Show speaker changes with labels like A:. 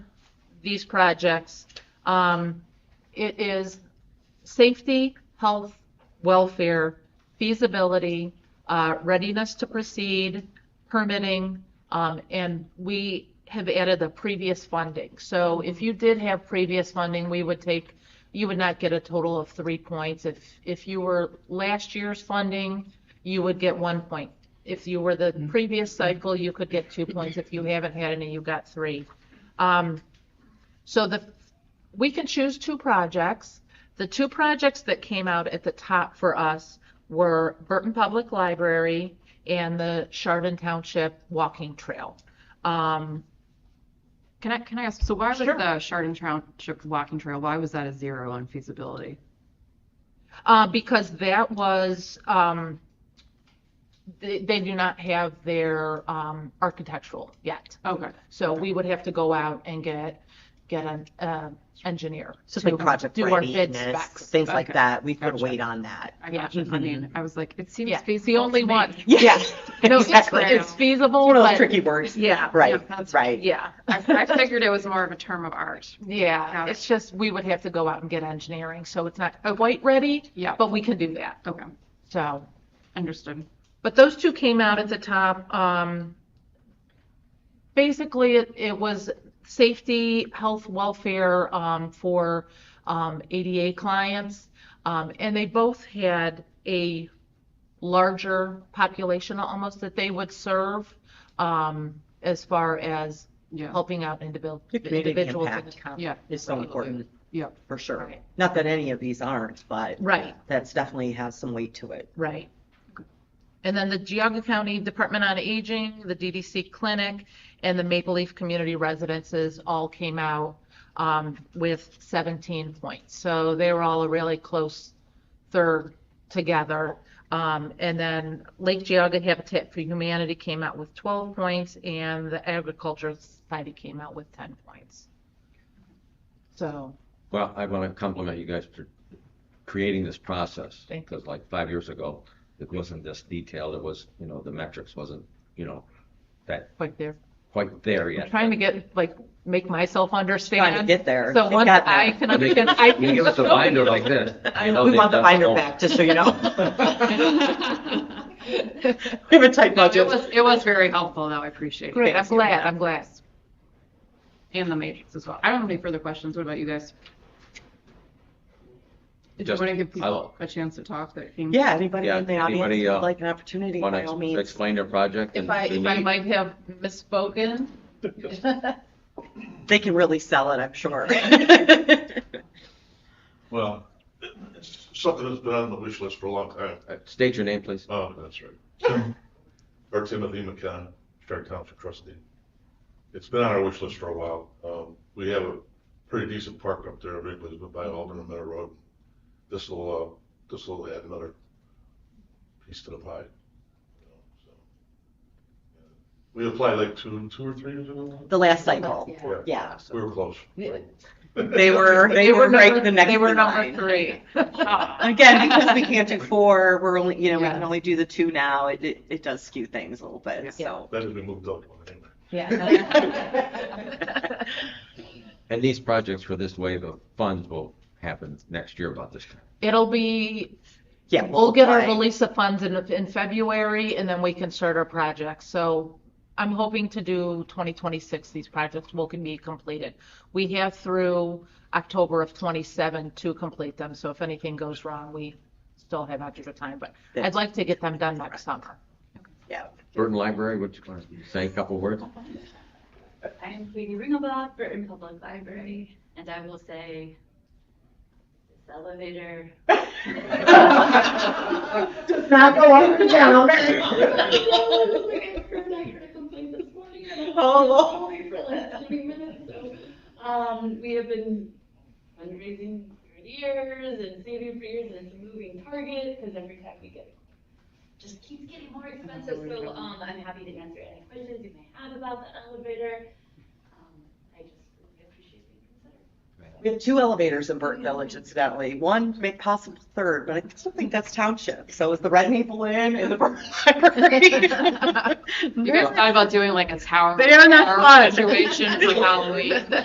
A: these projects. Um, It is safety, health, welfare, feasibility, uh, readiness to proceed, permitting, um, and we have added the previous funding. So if you did have previous funding, we would take, you would not get a total of three points. If, if you were last year's funding, you would get one point. If you were the previous cycle, you could get two points. If you haven't had any, you got three. Um, So the, we can choose two projects. The two projects that came out at the top for us were Burton Public Library and the Chardon Township Walking Trail. Um,
B: Can I, can I ask, so why was
A: Sure.
B: the Chardon Township walking trail, why was that a zero on feasibility?
A: uh, because that was, um, they, they do not have their, um, architectural yet.
B: Okay.
A: So we would have to go out and get, get an, uh, engineer.
C: So it's like
A: to
C: project
A: do our bid
C: readiness,
A: specs.
C: things like
B: Okay.
C: that. We could
B: Gotcha.
C: wait on that.
B: I got you. I mean, I was like, it seems
A: Yeah, the
B: feasible. to
A: only
B: me.
A: one.
C: Yeah.
A: No, it's,
C: Exactly.
B: fair.
A: it's feasible,
C: One of those
A: but,
C: tricky words.
A: yeah,
C: Right,
B: that's-
C: right.
A: yeah.
B: I I figured it was more of a term of art.
A: Yeah,
B: Got
A: it's just, we would have to go out and get engineering, so it's not quite ready,
B: Yeah,
A: but we can do that,
B: okay,
A: so.
B: understood.
A: But those two came out at the top. Um, basically, it, it was safety, health, welfare um, for um, ADA clients. Um, and they both had a larger population almost that they would serve um, as far as
B: Yeah,
A: helping out individual,
C: The community
A: individuals in the
C: impact.
A: county.
B: yeah,
C: It's so important,
B: yeah.
C: for sure.
A: Right.
C: Not that any of these aren't, but
A: Right.
C: that's definitely has some weight to it.
A: Right. And then the Geauga County Department on Aging, the DDC Clinic, and the Maple Leaf Community Residences all came out um, with 17 points. So they were all a really close third together. Um, And then Lake Geauga Habitat for Humanity came out with 12 points, and the Agricultural Society came out with 10 points. So,
D: Well, I want to compliment you guys for creating this process.
A: Thank you.
D: Because like five years ago, it wasn't this detailed, it was, you know, the metrics wasn't, you know,
A: like, they're
D: quite there
A: I'm
D: yet.
A: trying to get, like, make myself understand.
C: Trying to get there.
A: So
C: It
A: once
C: got
A: I
C: there.
A: can
D: They-
A: understand, I
D: You
A: can.
D: give us a binder like this. you know Oh,
C: We
D: they've
C: want the
D: done
C: binder
D: all-
C: back, just so you know.
B: No,
C: We have a tight
B: It
C: budget.
B: was, it was very helpful, though, I appreciate it.
A: Great, I'm
B: Thank you.
A: glad, I'm glad.
B: And the matrix as well. I don't have any further questions, what about you guys? Did you
D: Just-
B: want to give
D: I
B: people
D: will-
B: a chance to talk that came?
C: Yeah, anybody
D: Yeah,
C: in the audience
D: anybody,
C: who'd
D: uh,
C: like an opportunity,
D: Want
C: by all
D: to
C: means.
D: explain their project?
A: If
D: and
A: I,
D: the
A: if I
D: need?
A: might have misspoken.
C: They can really sell it, I'm sure.
E: Well, it's something that's been on the wish list for a long time.
D: Uh, State your name, please.
E: Oh, that's right. Tim, or Timothy McCann, Stark Township trustee. It's been on our wish list for a while. Um, we have a pretty decent park up there, Wrigley's, but by Alderman Miller Road. This'll, uh, this'll add another piece to the pie. you know, so. We applied like two, two or three years ago.
C: The last cycle, yeah.
E: We were close.
C: They were, they were right the next
A: They were
C: in
A: number
C: line.
A: three.
C: Again, because we can't do four, we're only, you know, we can
B: Yeah.
C: only do the two now, it, it, it does skew things a little
B: Yeah.
C: bit, so.
E: That has been moved up one anyway.
A: Yeah.
D: And these projects for this wave of funds will happen next year about this time.
A: It'll be,
C: Yeah.
A: we'll get our
C: apply.
A: release of funds in, in February, and then we can start our projects. So I'm hoping to do 2026, these projects will can be completed. We have through October of 27 to complete them, so if anything goes wrong, we still have extra time, but I'd like to get them done next summer.
C: Yeah.
D: Burton Library, would you want to say a couple words?
F: I'm Queenie Ringelbach, Burton Public Library, and I will say, this elevator
C: Not go up and down.
F: I heard I heard a complaint this morning. and I
C: Oh, Lord.
F: was away for like twenty minutes, so, Um, we have been fundraising for years and saving for years and it's a moving target because every time we get, just keeps getting more expensive. So, um, I'm happy to answer any questions you may have about the elevator. Um, I just really appreciate being considered.
C: We have two elevators in Burton Village incidentally, one may possible third, but I still think that's township, so is the Red Maple Inn and the Burton Library.
B: You guys thought about doing like a tower.
C: They are not
B: tower
C: fun.
B: Situation for Halloween.